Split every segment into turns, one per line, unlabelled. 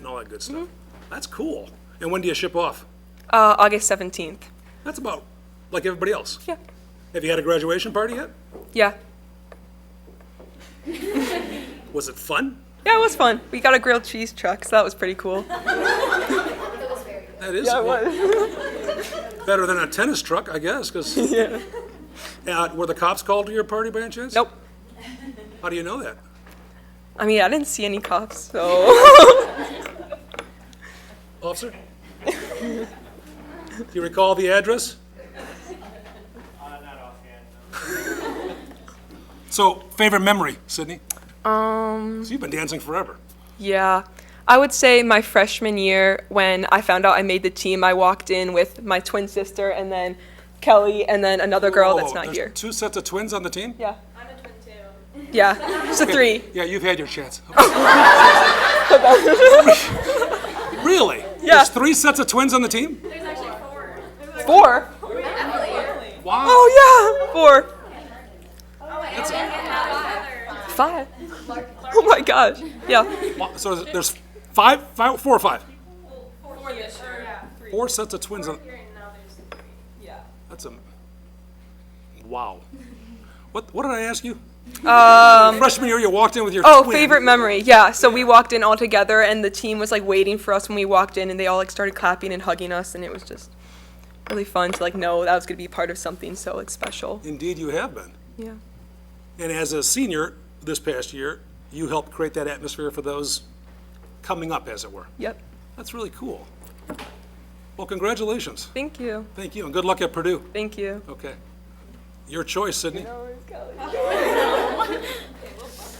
and all that good stuff. That's cool. And when do you ship off?
Uh, August 17th.
That's about like everybody else.
Yeah.
Have you had a graduation party yet?
Yeah.
Was it fun?
Yeah, it was fun. We got a grilled cheese truck, so that was pretty cool.
That is better than a tennis truck, I guess, because. Uh, were the cops called to your party by any chance?
Nope.
How do you know that?
I mean, I didn't see any cops, so.
Officer? Do you recall the address?
Uh, not offhand, no.
So, favorite memory, Sydney? Um. So you've been dancing forever.
yeah. I would say my freshman year, when I found out I made the team, I walked in with my twin sister and then Kelly and then another girl that's
Oh,
not
there's
here.
Two sets of twins on the team?
Yeah. I'm a
Oh,
twin too. Yeah. It's a three.
Yeah, you've had your chance. really?
Yeah.
There's three sets of twins on the team?
Four?
Wow.
Oh, yeah. Four. Five. Oh my gosh. Yeah.
Wow, So there's- there's five, five, four or five? Four sets of twins. on- That's a, wow. What, what did I ask you? Um. Freshman year, you walked in with your
Oh,
twin.
favorite memory. Yeah. So we walked in all together, and the team was like waiting for us when we walked in, and they all like started clapping and hugging us, and it was just really fun to like know that was gonna be part of something so like special.
Indeed, you have been.
Yeah.
And as a senior this past year, you helped create that atmosphere for those coming up, as it were.
Yep.
That's really cool. Well, congratulations.
Thank you.
Thank you, and good luck at Purdue.
Thank you.
Okay. Your choice, Sydney.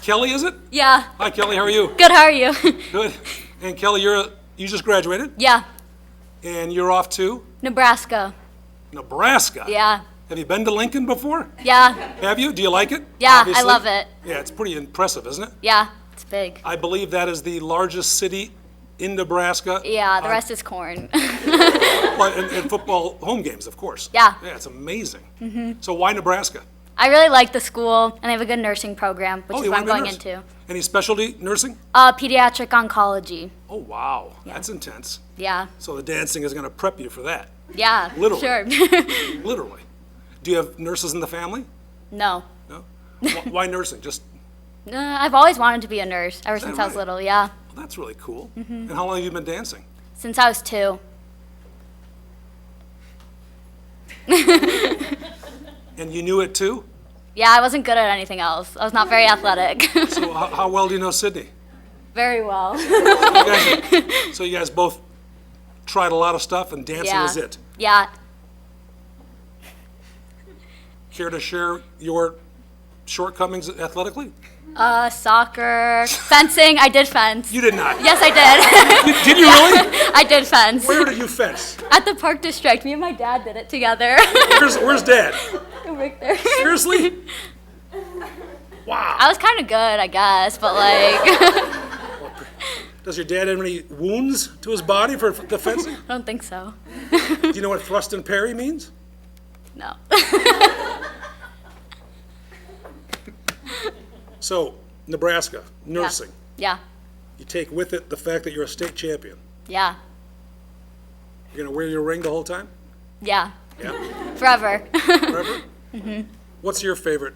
Kelly, is it?
Yeah.
Hi, Kelly, how are you?
Good, how are you?
Good. And Kelly, you're, you just graduated,
yeah.
and you're off to
Nebraska.
Nebraska.
Yeah.
Have you been to Lincoln before?
Yeah.
Have you? Do you like it?
Yeah, I
Obviously.
love it.
Yeah, it's pretty impressive, isn't it?
Yeah. It's big.
I believe that is the largest city in Nebraska.
Yeah, the
on-
rest is corn.
Well, and, and football home games, of course.
Yeah.
Yeah, it's amazing. Mm-hmm. So why Nebraska?
I really like the school, and they have a good nursing program,
Oh,
which is
you
what
wanna
I'm
be a
going
nurse?
into.
Any specialty nursing?
Uh, pediatric oncology.
Oh, wow. That's intense.
Yeah.
So the dancing is going to prep you for that,
Yeah.
Literally.
Sure.
literally. Do you have nurses in the family?
no.
No? Wh- Why nursing? Just,
Uh, I've always wanted to be a nurse ever since I was
right?
little. Yeah.
well, that's really cool.
Mm-hmm.
And how long have you been dancing?
Since I was two.
And you knew it too?
Yeah, I wasn't good at anything else. I was not very athletic.
So how, how well do you know Sydney?
very well.
You guys- so you guys both tried a lot of stuff and dancing
yeah.
is it.
Yeah.
Care to share your shortcomings athletically?
Uh, soccer, fencing. I did fence.
You did not.
Yes, I did.
Did you really?
I did fence.
Where did you fence?
At the park district, me and my dad did it together.
Where's, where's dad?
Over there.
Seriously?
I was kind of good, I guess, but like, I
Does your dad have any wounds to his body for the fencing?
don't think so.
Do you know what thrust and parry means?
No.
So, Nebraska, nursing.
yeah.
You take with it the fact that you're a state champion.
Yeah.
You're going to wear your ring the whole time?
Yeah.
Yeah?
Forever.
Forever? mm-hmm. What's your favorite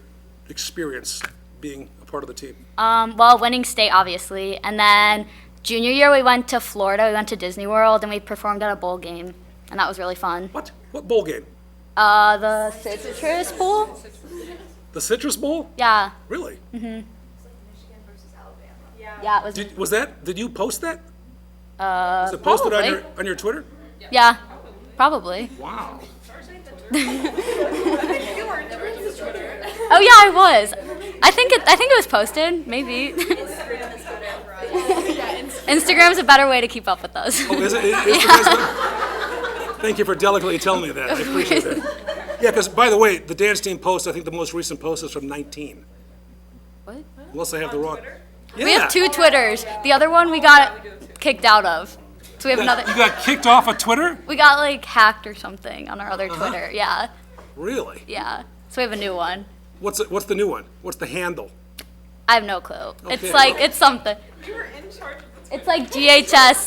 experience being a part of the team?
um, well, winning state, obviously. And then junior year, we went to Florida. We went to Disney World and we performed at a bowl game. And that was really fun.
What? What bowl game?
Uh, the citrus bowl?
The Citrus Bowl?
Yeah.
Really?
Yeah, it was.
Did, was that, did you post that? Uh, Was it posted on your, on your Twitter?
yeah. Probably.
Wow.
Oh yeah, I was. I think it, I think it was posted, maybe. Instagram's a better way to keep up with us.
Oh, Is it, is is the resident- Thank you for delicately telling me that. I appreciate that. Yeah, because by the way, the dance team post, I think the most recent post is from 19.
What?
Unless I have the wrong.
We have two Twitters. The other one we got kicked out of. So we have another.
You got kicked off of Twitter?
We got like hacked or something on our other
Uh-huh.
Twitter. Yeah,
Really?
yeah. So we have a new one.
What's, the- what's the new one? What's the handle?
I have no clue.
Okay.
It's like it's something.
You were in charge of the
It's like GHS